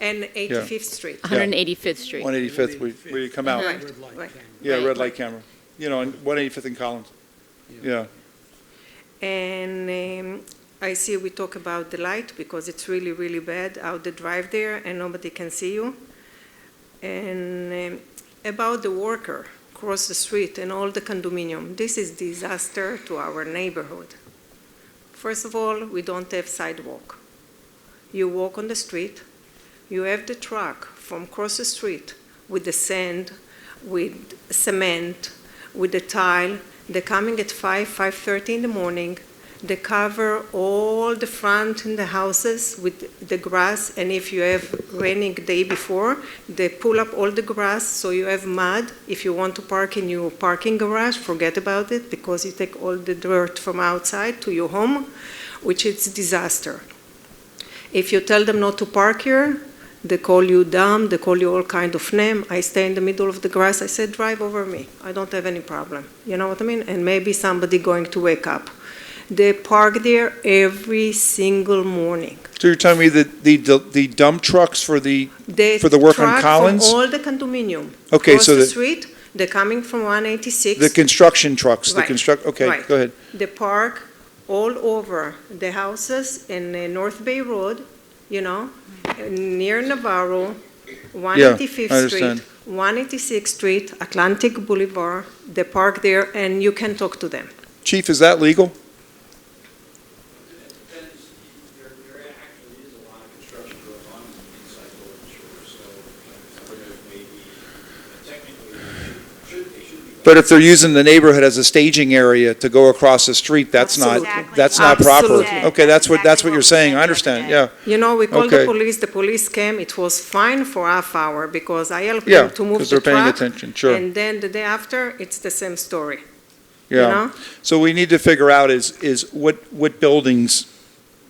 and 85th Street. 185th Street. 185th, where you- where you come out. Right, Red light right. camera. Yeah, right. red light camera. You know, and 185th and Collins. Yeah, And um, I see we talk about the light because it's really, really bad out the drive there and nobody can see you. And um, about the worker across the street and all the condominium, this is disaster to our neighborhood. First of all, we don't have sidewalk. You walk on the street, you have the truck from across the street with the sand, with cement, with the tile, they're coming at 5, 5:30 in the morning. They cover all the front in the houses with the grass, and if you have raining day before, they pull up all the grass, so you have mud. If you want to park in your parking garage, forget about it, because you take all the dirt from outside to your home, which is disaster. If you tell them not to park here, they call you dumb, they call you all kind of name. I stay in the middle of the grass. I said, drive over me. I don't have any problem. You know what I mean? And maybe somebody going to wake up. They park there every single morning. so you're telling me that the, the dump trucks for the, They For the work on truck Collins? From all the condominium. okay, Across so the the, street, they're coming from the 186. construction trucks, the Right, construct, okay, right. go ahead. They park all over the houses in uh, North Bay Road, you know, near Navarro, 185th understand. Street, 186th Street, Atlantic Boulevard. They park there and you can talk to them. Chief, is that legal? depends, there, there actually is a lot of construction going on inside Golden Shore, so some of it may be, technically, they should, they should be. But if they're using the neighborhood as a staging area to go across the street, that's not, Absolutely. that's not proper. Absolutely. Okay, that's what, that's what you're That's saying, I exactly what we understand, said yeah. You know, we called the Okay. police, the police came, it was fine for half hour because I helped Yeah, them to move because the they're paying truck. attention, sure, And then the day after, it's the same story, you yeah. know? So we need to figure out is, is what, what buildings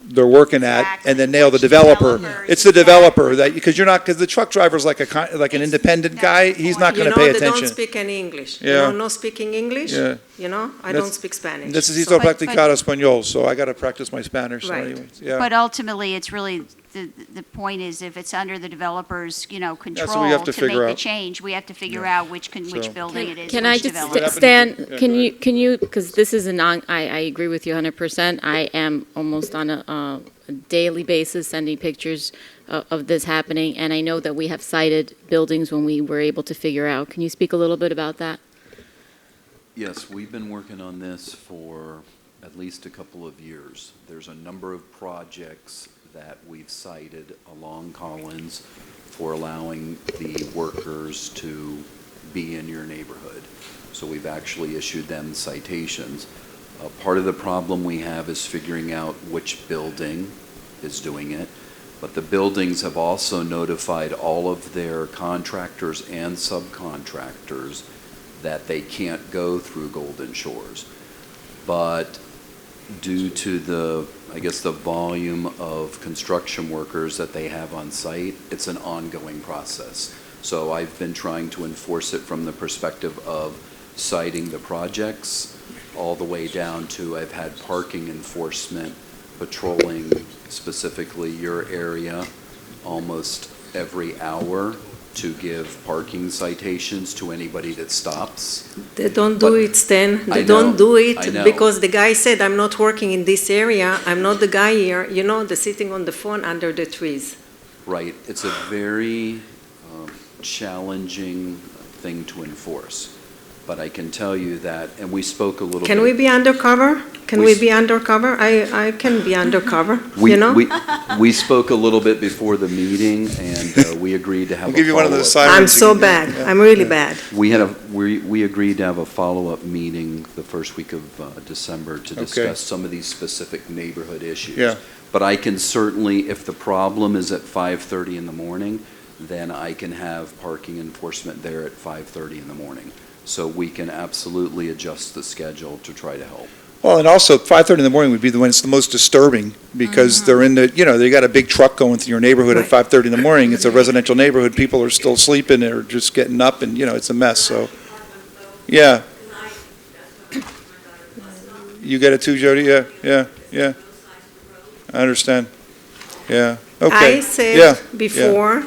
they're working at, and then nail the developer. Exactly. It's the developer that, because you're not, because the truck driver's like a, con- like an independent guy, he's not You gonna know, pay they don't attention. speak any English. You Yeah. know, no speaking English, Yeah. you know? I That's- don't speak Spanish. Necesito So- practicar español, so I gotta practice my Spanish, so Right. anyways, yeah. But ultimately, it's really, the, the point is if it's under the developer's, you know, what we control have to to make figure the out. change, we have to figure out which can, So- which building it is, Can I which just, developer. sta- developer. Stan, Yeah, can go you, can you, because this is a non, I, I agree with you 100%. I am almost on a, uh, a daily basis sending pictures of, of this happening, and I know that we have cited buildings when we were able to figure out. Can you speak a little bit about that? Yes, we've been working on this for at least a couple of years. There's a number of projects that we've cited along Collins for allowing the workers to be in your neighborhood. So we've actually issued them citations. Uh, Part of the problem we have is figuring out which building is doing it, but the buildings have also notified all of their contractors and subcontractors that they can't go through Golden Shores. But due to the, I guess, the volume of construction workers that they have on site, it's an ongoing process. So I've been trying to enforce it from the perspective of citing the projects all the way down to I've had parking enforcement patrolling specifically your area almost every hour to give parking citations to anybody that stops. They don't do But- it, Stan. I They don't know, do it I know. because the guy said, I'm not working in this area. I'm not the guy here. You know, they're sitting on the phone under the trees. Right, it's a very um, challenging thing to enforce, but I can tell you that, and we spoke a little bit. Can we be undercover? Can We we s- be undercover? I, I can be undercover, We- you know? we- We spoke a little bit before the meeting, and uh, we agreed to have a We'll give you one of those follow-up. I'm sirens you so can do. bad. Yeah. I'm really bad. We had a, we, we agreed to have a follow-up meeting the first week of uh, December to Okay. discuss some of these specific neighborhood issues. Yeah. But I can certainly, if the problem is at 5:30 in the morning, then I can have parking enforcement there at 5:30 in the morning. So we can absolutely adjust the schedule to try to help. Well, and also, 5:30 in the morning would be the when it's the most disturbing, because they're in the, you know, they got a big truck going through your neighborhood at Right. 5:30 in the morning, it's a residential neighborhood, people are still sleeping, or just getting up, and, you know, it's a mess, so, yeah. You get it too, Jody? Yeah, yeah, yeah. I understand, yeah, Okay. I Yeah, said yeah. before,